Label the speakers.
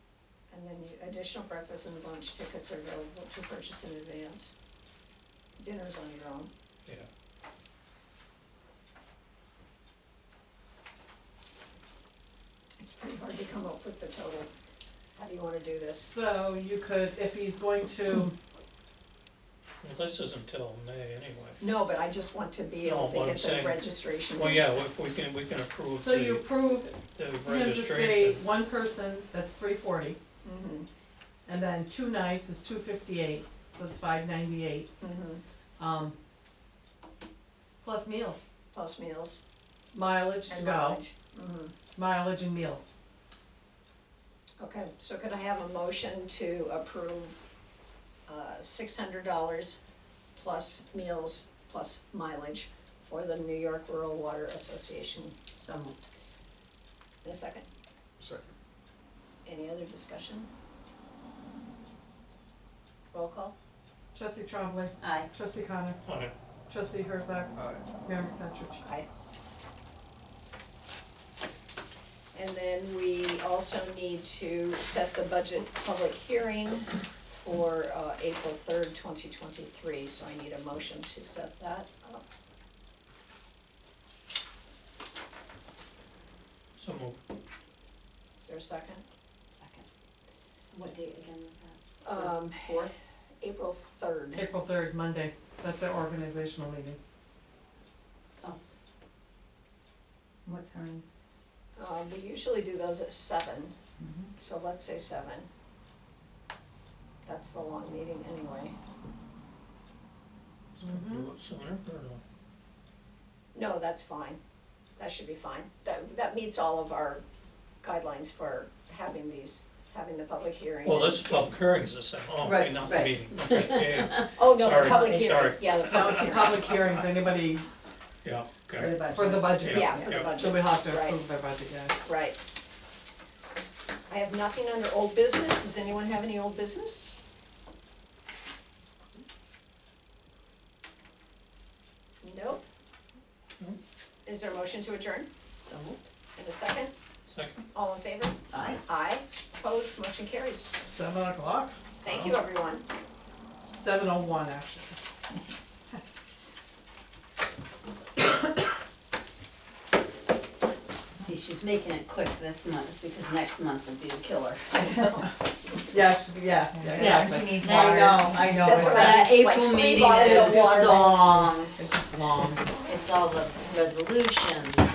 Speaker 1: Additional breakfast and lunch tickets are available to purchase in advance. Dinner's on your own.
Speaker 2: yeah.
Speaker 1: It's pretty hard to come up with the total. How do you wanna do this?
Speaker 3: So you could, if he's going to,
Speaker 2: Well, this isn't till May anyway.
Speaker 1: No, but I just want to be able
Speaker 2: No, what
Speaker 1: to
Speaker 2: I'm
Speaker 1: get the
Speaker 2: saying-
Speaker 1: registration.
Speaker 2: Well, yeah, if we can, we can approve
Speaker 3: so you
Speaker 2: the,
Speaker 3: approve
Speaker 2: the
Speaker 3: him to stay
Speaker 2: registration.
Speaker 3: one person, that's three forty,
Speaker 1: Mhm,
Speaker 3: and then two nights is two fifty-eight, so it's five ninety-eight,
Speaker 1: mhm.
Speaker 3: um, plus meals,
Speaker 1: Plus meals
Speaker 3: mileage to
Speaker 1: and
Speaker 3: go,
Speaker 1: mileage. Mhm.
Speaker 3: mileage and meals.
Speaker 1: Okay, so could I have a motion to approve uh, six hundred dollars plus meals plus mileage for the New York Rural Water Association?
Speaker 4: So moved.
Speaker 1: In a second,
Speaker 5: Second.
Speaker 1: any other discussion? Roll call?
Speaker 3: Trustee Trombley,
Speaker 4: Aye.
Speaker 3: trustee Connor,
Speaker 2: Aye.
Speaker 3: trustee Herzog,
Speaker 5: Aye.
Speaker 3: Mayor McFetrich.
Speaker 1: Aye. And then we also need to set the budget public hearing for uh, April third, twenty twenty-three, so I need a motion to set that up.
Speaker 2: So moved.
Speaker 1: Is there a second?
Speaker 4: Second. What date again was that?
Speaker 1: Um,
Speaker 4: Fourth?
Speaker 1: April third.
Speaker 3: April third, Monday, that's our organizational meeting.
Speaker 4: Oh. What time?
Speaker 1: Um, we usually do those at seven, so let's say seven. That's the long meeting anyway.
Speaker 2: Do
Speaker 3: Mm-hmm.
Speaker 2: it sooner or no?
Speaker 1: No, that's fine. That should be fine. That, that meets all of our guidelines for having these, having the public hearing.
Speaker 2: Well, this is public hearing is the same, oh, okay,
Speaker 4: Right,
Speaker 2: not the
Speaker 4: right.
Speaker 2: meeting, okay, yeah,
Speaker 1: Oh, no, the
Speaker 2: sorry,
Speaker 1: public hearing,
Speaker 2: sorry.
Speaker 1: yeah, the
Speaker 3: Now,
Speaker 1: public
Speaker 3: it's a
Speaker 1: hearing.
Speaker 3: public hearing, if anybody,
Speaker 2: yeah,
Speaker 4: For the
Speaker 2: okay.
Speaker 4: budget.
Speaker 3: for the budget.
Speaker 1: Yeah, for the
Speaker 2: Yeah.
Speaker 3: So
Speaker 1: budget,
Speaker 3: we have to
Speaker 1: Right.
Speaker 3: approve their budget, yeah.
Speaker 1: right. I have nothing under old business. Does anyone have any old business? Nope.
Speaker 2: Nope.
Speaker 1: Is there a motion to adjourn?
Speaker 4: Hmm? So moved.
Speaker 1: In a second?
Speaker 2: Second,
Speaker 1: All in favor?
Speaker 4: Aye.
Speaker 1: Aye. Opposed? Motion carries.
Speaker 3: Seven o'clock?
Speaker 1: Thank you, everyone.
Speaker 3: Seven oh one, actually.
Speaker 4: See, she's making it quick this month, because next month would be the killer.
Speaker 3: Yes, yeah, yeah, exactly.
Speaker 4: needs
Speaker 3: I know, I know.
Speaker 1: That's
Speaker 3: it's-
Speaker 1: what I-
Speaker 4: That
Speaker 1: Like
Speaker 4: April
Speaker 1: three
Speaker 4: meeting
Speaker 1: bottles
Speaker 4: is
Speaker 1: of
Speaker 4: just
Speaker 1: water.
Speaker 4: long,
Speaker 3: It's just long.
Speaker 4: it's all the resolutions